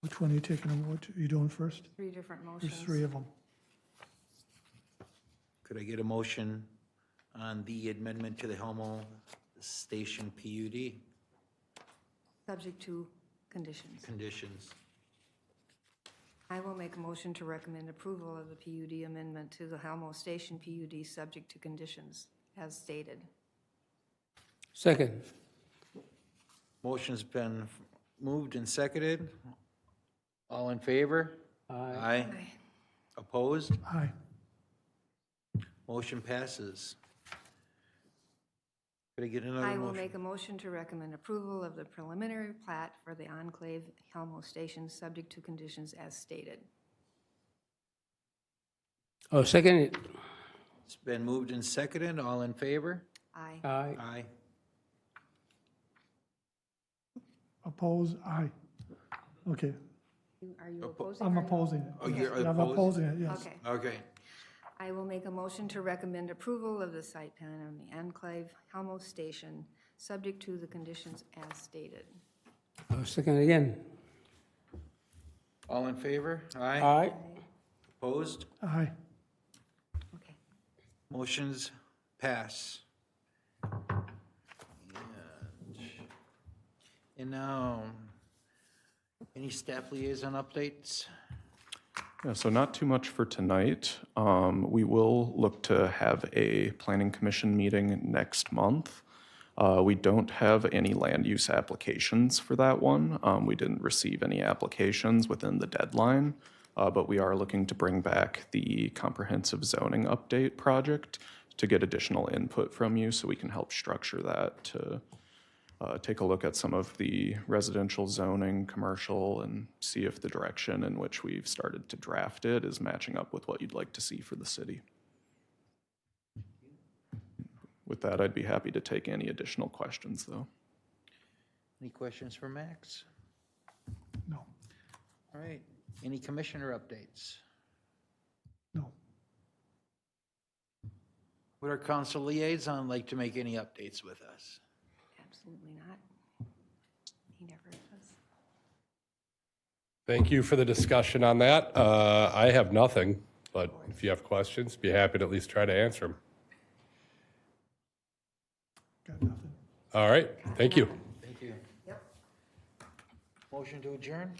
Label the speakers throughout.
Speaker 1: Which one are you taking them, what are you doing first?
Speaker 2: Three different motions.
Speaker 1: There's three of them.
Speaker 3: Could I get a motion on the amendment to the Helmo Station PUD
Speaker 2: Subject to conditions.
Speaker 3: conditions?
Speaker 2: I will make a motion to recommend approval of the PUD amendment to the Halmo Station PUD, subject to conditions, as stated.
Speaker 4: Second.
Speaker 3: Motion's been moved and seconded. All in favor?
Speaker 4: Aye.
Speaker 3: Aye. Opposed?
Speaker 1: Aye.
Speaker 3: Motion passes. Could I get
Speaker 2: I
Speaker 3: another
Speaker 2: will
Speaker 3: motion?
Speaker 2: make a motion to recommend approval of the preliminary plat for the enclave Halmo Station, subject to conditions as stated.
Speaker 4: Oh, second it.
Speaker 3: It's been moved and seconded. All in favor?
Speaker 2: Aye.
Speaker 4: Aye.
Speaker 3: Aye.
Speaker 1: Oppose, aye. Okay,
Speaker 2: You- Are you opposing?
Speaker 1: I'm
Speaker 2: or no?
Speaker 1: opposing it.
Speaker 3: Oh, you're
Speaker 1: I'm
Speaker 3: opposed?
Speaker 1: opposing it, yes.
Speaker 2: Okay.
Speaker 3: Okay.
Speaker 2: I will make a motion to recommend approval of the site plan on the enclave Halmo Station, subject to the conditions as stated.
Speaker 4: Oh, second again.
Speaker 3: All in favor? Aye.
Speaker 4: Aye.
Speaker 3: Opposed?
Speaker 1: Aye.
Speaker 2: Okay.
Speaker 3: Motion's pass. And now, any staff liaison updates?
Speaker 5: Yeah, so not too much for tonight. Um, We will look to have a planning commission meeting next month. Uh, We don't have any land use applications for that one. Um, We didn't receive any applications within the deadline, uh, but we are looking to bring back the comprehensive zoning update project to get additional input from you so we can help structure that to uh, take a look at some of the residential zoning, commercial, and see if the direction in which we've started to draft it is matching up with what you'd like to see for the city. With that, I'd be happy to take any additional questions, though.
Speaker 3: Any questions for Max?
Speaker 1: No,
Speaker 3: All right. Any commissioner updates?
Speaker 1: no.
Speaker 3: Would our council liaison like to make any updates with us?
Speaker 2: Absolutely not. He never does.
Speaker 6: Thank you for the discussion on that. Uh, I have nothing, but if you have questions, be happy to at least try to answer them.
Speaker 1: Got nothing.
Speaker 6: All right, thank you.
Speaker 3: Thank you. Yep. Motion to adjourn?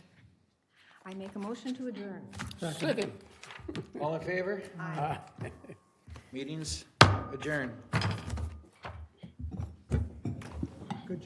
Speaker 2: I make a motion to adjourn.
Speaker 4: Second.
Speaker 3: All in favor? Meetings adjourned.